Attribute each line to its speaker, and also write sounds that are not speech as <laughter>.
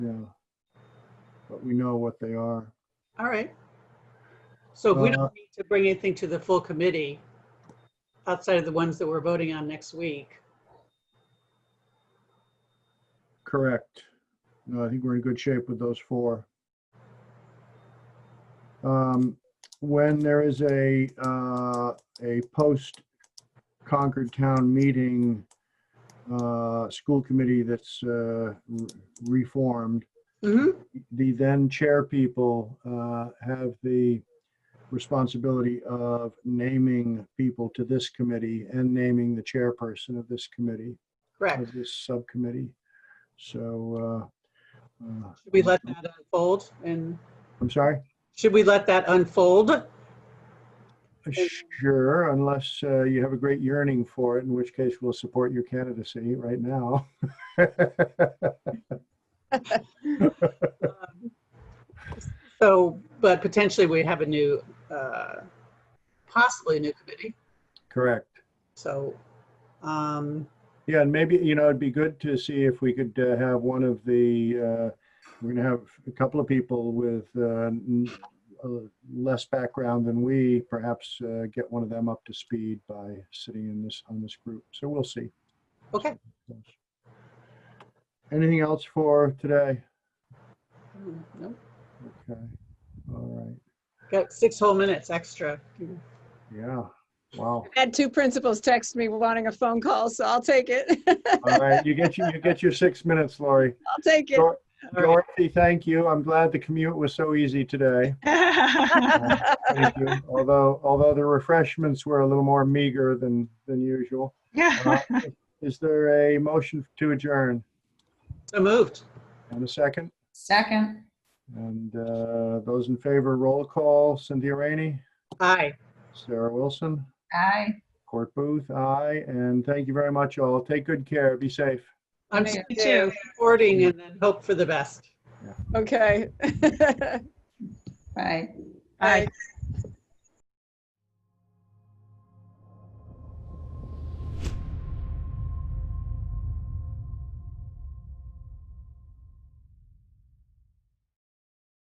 Speaker 1: Yeah. But we know what they are.
Speaker 2: All right. So if we
Speaker 1: Uh,
Speaker 2: don't need to bring anything to the full committee, outside of the ones that we're voting on next week,
Speaker 1: Correct. No, I think we're in good shape with those four. Um, When there is a, uh, a post Concord Town meeting, uh, school committee that's uh, re- reformed,
Speaker 2: Mhm.
Speaker 1: the then chair people uh, have the responsibility of naming people to this committee and naming the chairperson of this committee,
Speaker 2: correct.
Speaker 1: of this subcommittee. So, uh, uh,
Speaker 2: Should we let that unfold? And
Speaker 1: I'm sorry,
Speaker 2: should we let that unfold?
Speaker 1: sure, unless uh, you have a great yearning for it, in which case we'll support your candidacy right now. <laughs>
Speaker 2: So, but potentially we have a new, uh, possibly a new committee.
Speaker 1: Correct.
Speaker 2: So, um,
Speaker 1: Yeah, and maybe, you know, it'd be good to see if we could uh, have one of the, uh, we're gonna have a couple of people with uh, n- uh, less background than we, perhaps uh, get one of them up to speed by sitting in this, on this group. So we'll see.
Speaker 2: okay.
Speaker 1: Anything else for today?
Speaker 2: Mm, no.
Speaker 1: Okay, all right,
Speaker 2: Got six whole minutes extra.
Speaker 1: yeah, wow.
Speaker 3: Had two principals text me wanting a phone call, so I'll take it. <laughs>
Speaker 1: All right, you get, your- you get your six minutes, Lori.
Speaker 3: I'll take it.
Speaker 1: Dor-
Speaker 2: All right.
Speaker 1: Dorothy, thank you. I'm glad the commute was so easy
Speaker 2: <laughs>
Speaker 1: today. Uh, Thank you. Although, although the refreshments were a little more meager than, than usual. Uh, Is there a motion to adjourn
Speaker 2: So moved.
Speaker 1: and a second?
Speaker 4: Second,
Speaker 1: And uh, those in favor, roll call. Cynthia Rainey,
Speaker 2: Aye.
Speaker 1: Sarah Wilson,
Speaker 4: aye.
Speaker 1: Court Booth, aye. And thank you very much all. Take good care. Be safe.
Speaker 2: I'm
Speaker 3: Me
Speaker 2: too.
Speaker 3: too.
Speaker 2: Recording and then hope
Speaker 3: <laughs>
Speaker 2: for the best.
Speaker 3: Okay.
Speaker 4: Right.
Speaker 3: Bye.